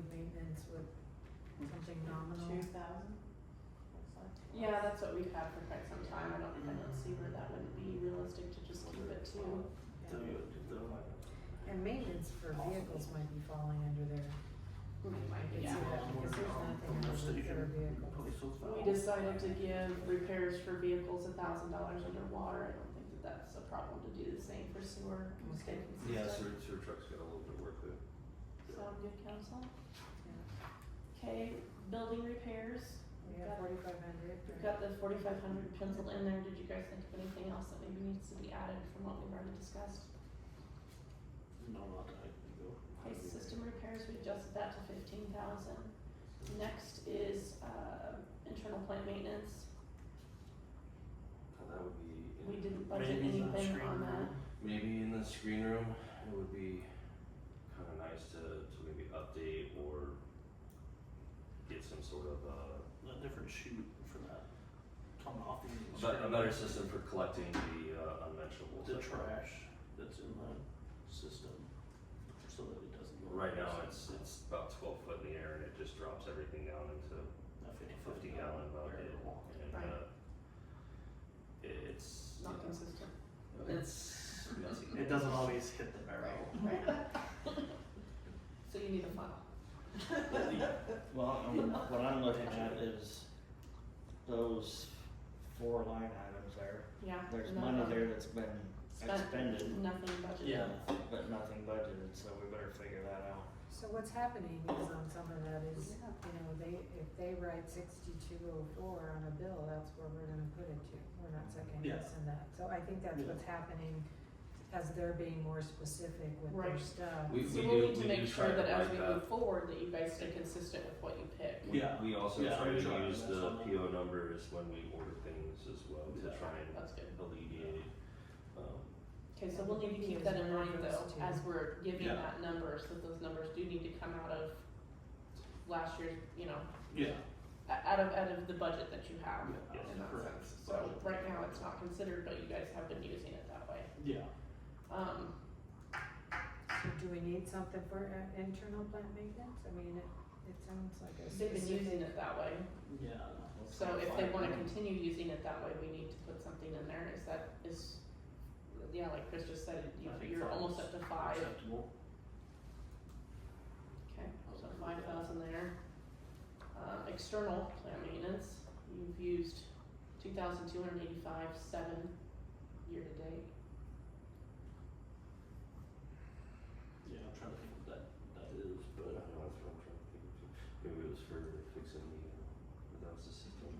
ordinance with something nominal. Two thousand? Yeah, that's what we've had for quite some time. I don't, I don't see where that would be realistic to just keep it to. And maintenance for vehicles might be falling under there. It might be, It's yeah. either- because there's nothing under for vehicles. We decided to give repairs for vehicles a thousand dollars underwater. I don't think that that's a problem to do the same for sewer. and stay Yeah, consistent. sewer, sewer trucks got a little bit of work there. Sound good, council? Yeah. Okay, building repairs. We have forty-five hundred. We've got the forty-five hundred penciled in there. Did you guys think of anything else that maybe needs to be added from what we've already discussed? No, not that I can go. Ice system repairs, we adjusted that to fifteen thousand. Next is, uh, internal plant maintenance. Uh, That would be. in- We didn't budget maybe in the anything screen on that. room. Maybe in the screen room, it would be kinda nice to, to maybe update or get some sort of uh a different shoot for that coming off the a end bet- a better system for collecting the uh unmentionables. the trash that's in the system so that it doesn't go Right now, it's, it's about twelve foot in the air and it just drops everything down into a a fifty gallon bucket variable. and uh Right. it- it's. Not consistent. It's messy. It doesn't always hit the barrel. So you need a file. Well, I mean, what I'm looking at is those four line items there. Yeah. There's no, money no. there that's been Spent. expended, Nothing budgeted. Yeah. but nothing budgeted, so we better figure that out. So what's happening is on some of that is, you know, they, if they write sixty-two oh four on a bill, that's where we're gonna put it to. We're not second Yeah. guessing that. So I think that's Yeah. what's happening as they're being more specific with their Right. stuff. We- So we we'll do- need to we make do sure try to that as we write that. move forward, that you guys stay consistent with what you pick. We- Yeah. We also Yeah, try I'm to sure use that's the on there. PO numbers when we order things as well to Yeah. try and That's good. alleviate, um, Okay, so we'll need to keep that in mind though, as we're giving Yeah. that number, so those numbers do need to come out of last year's, you know, Yeah. o- out of, out of the budget that you have. Yes, in that correct. sense. So right now, it's not considered, but you guys have been using it that way. Yeah. Um, So do we need something for uh, internal plant maintenance? I mean, it, it sounds like a they've been using specific. it that way, Yeah. so if they wanna continue using it that way, we need to put something in there, is that, is, yeah, like Chris just said, you, I think you're five's almost up to five. Acceptable. Okay, so five thousand there. Uh, external plant maintenance, you've used two thousand two hundred eighty-five, seven year to date. Yeah, I'm trying to think what that that is, but I don't but know, that's what I'm trying to think of too. Maybe it was for fixing the, uh, that was the system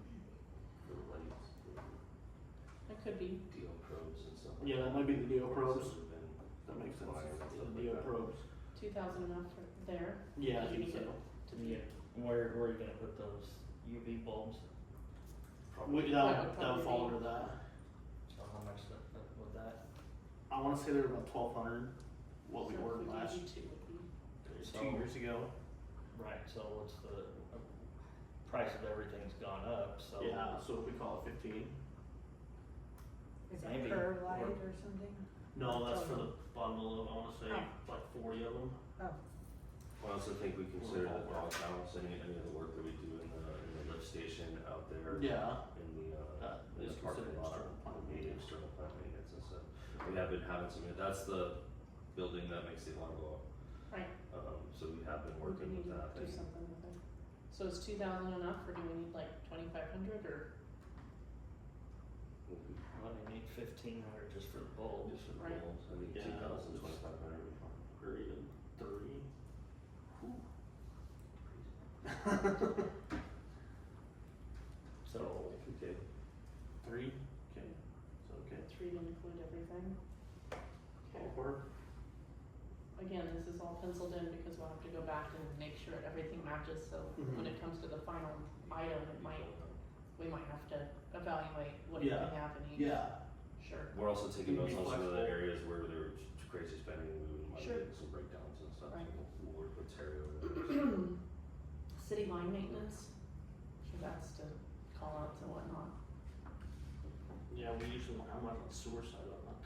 for the lights, the That could be, DO probes and stuff like that. yeah, that might be the deal Or probes. this would've been That makes sense. fire and stuff The like deal that. probes. two thousand enough for there Yeah. I You think need so. to be, Where, where are you gonna put those UV bulbs? We, That that, would that probably would fall under be- that. So how much that, that- would that? I wanna say they're about twelve hundred, what we so if ordered we last, gave you two would be, two So- years ago. Right, so what's the, uh, price of everything's gone up, so. Yeah, so if we call it fifteen, Is Maybe. it curb light or something? no, that's for the bottom of, the- I wanna say, like forty of them. Oh, I also think we consider the Or- dog house, any, any of the work that we do in the, in the lift station out there. Yeah, in the uh, That in the is parking considered lot, external plant would be maintenance. external plant maintenance and stuff. We have been having some, that's the building that makes the alarm go off. Right. Um, so we have been we working need with to that do and something with it. So is two thousand enough, or do we need like twenty-five hundred, or, we'll be Well, you need fifteen hundred just for the bulbs. just for Right. goals, I think Yeah, two thousand, it's- twenty-five hundred would be fine. period, three. So, Okay, Three, okay, so okay, three to include everything? Okay. four, again, this is all penciled in because we'll have to go back and make sure everything matches, so when it comes to the final item, it might, we might have to evaluate what you Yeah. can have in each. yeah, Sure, we're also taking Can notes you on be some of the flexible? areas where there was crazy spending, we would might Sure. get some breakdowns and stuff, so Right. we'll, we'll work with Terry over there. city line maintenance, so that's to call outs and whatnot. yeah, we usually don't have much on the sewer side of